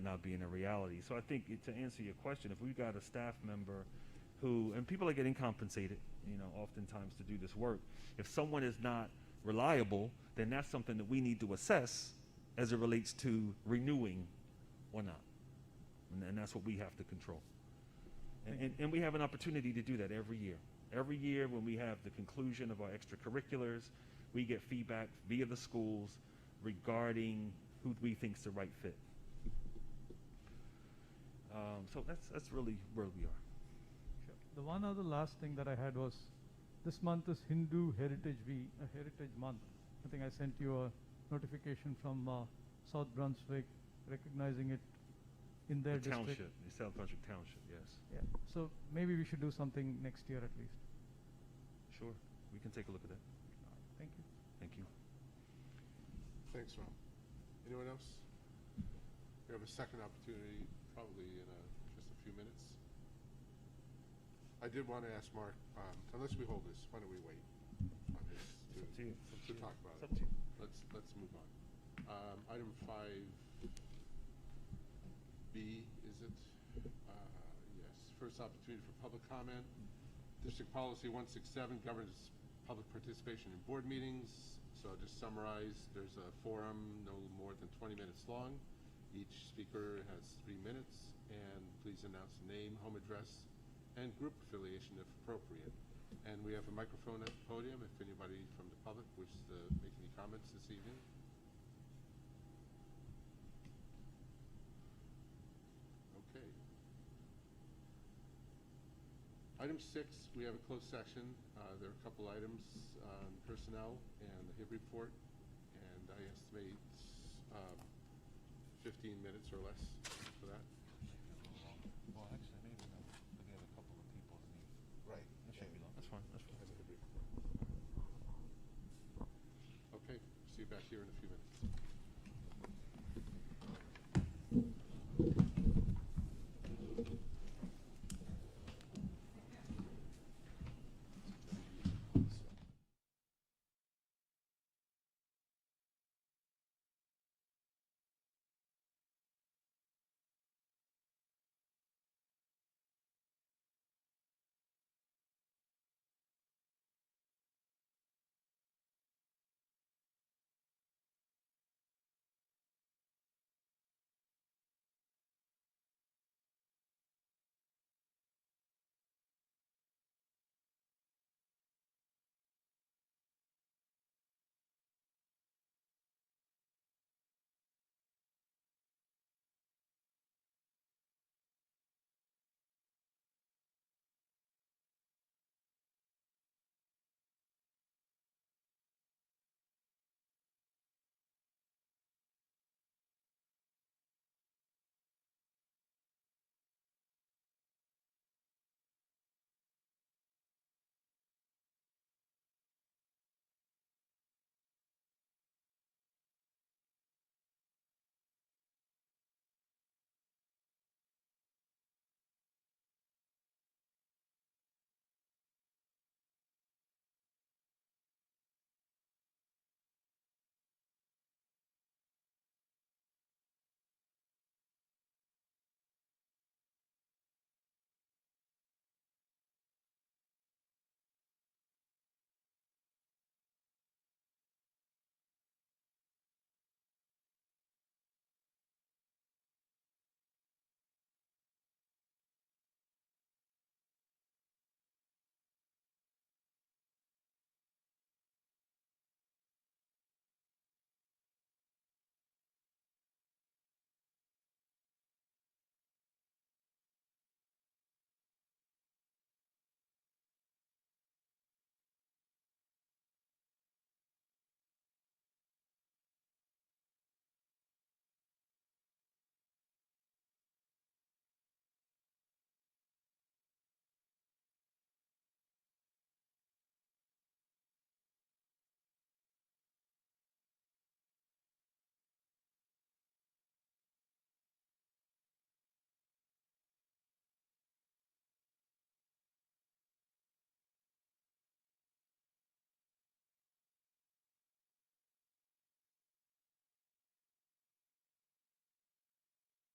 not being a reality. So I think it- to answer your question, if we've got a staff member who, and people are getting compensated, you know, oftentimes to do this work, if someone is not reliable, then that's something that we need to assess as it relates to renewing or not. And, and that's what we have to control. And, and, and we have an opportunity to do that every year. Every year, when we have the conclusion of our extracurriculars, we get feedback via the schools regarding who we think's the right fit. Um, so that's that's really where we are. Sure. The one other last thing that I had was, this month is Hindu Heritage Week, uh, Heritage Month. I think I sent you a notification from uh, South Brunswick recognizing it in their the district. township, the South Brunswick Township, yes. Yeah. So maybe we should do something next year at least. Sure, we can take a look at that. Thank you. Thank you. Thanks, Ron. Anyone else? We have a second opportunity, probably in uh, just a few minutes. I did want to ask Mark, um, unless we hold this, why don't we wait on this It's up to you. to It's up to to you. talk about It's up it? to you. Let's, let's move on. Um, Item five B, is it? Uh, Yes, first opportunity for public comment. District Policy 167 governs public participation in board meetings. So I'll just summarize, there's a forum no more than 20 minutes long. Each speaker has three minutes, and please announce name, home address, and group affiliation if appropriate. And we have a microphone at the podium if anybody from the public wishes to make any comments this evening. Okay. Item six, we have a closed session. Uh, There are a couple items on personnel and the HIB report, and I estimate um, 15 minutes or less for that. Well, actually, maybe no, but we have a couple of people that need, Right. that should be long. That's fine. That's fine. Okay, see you back here in a few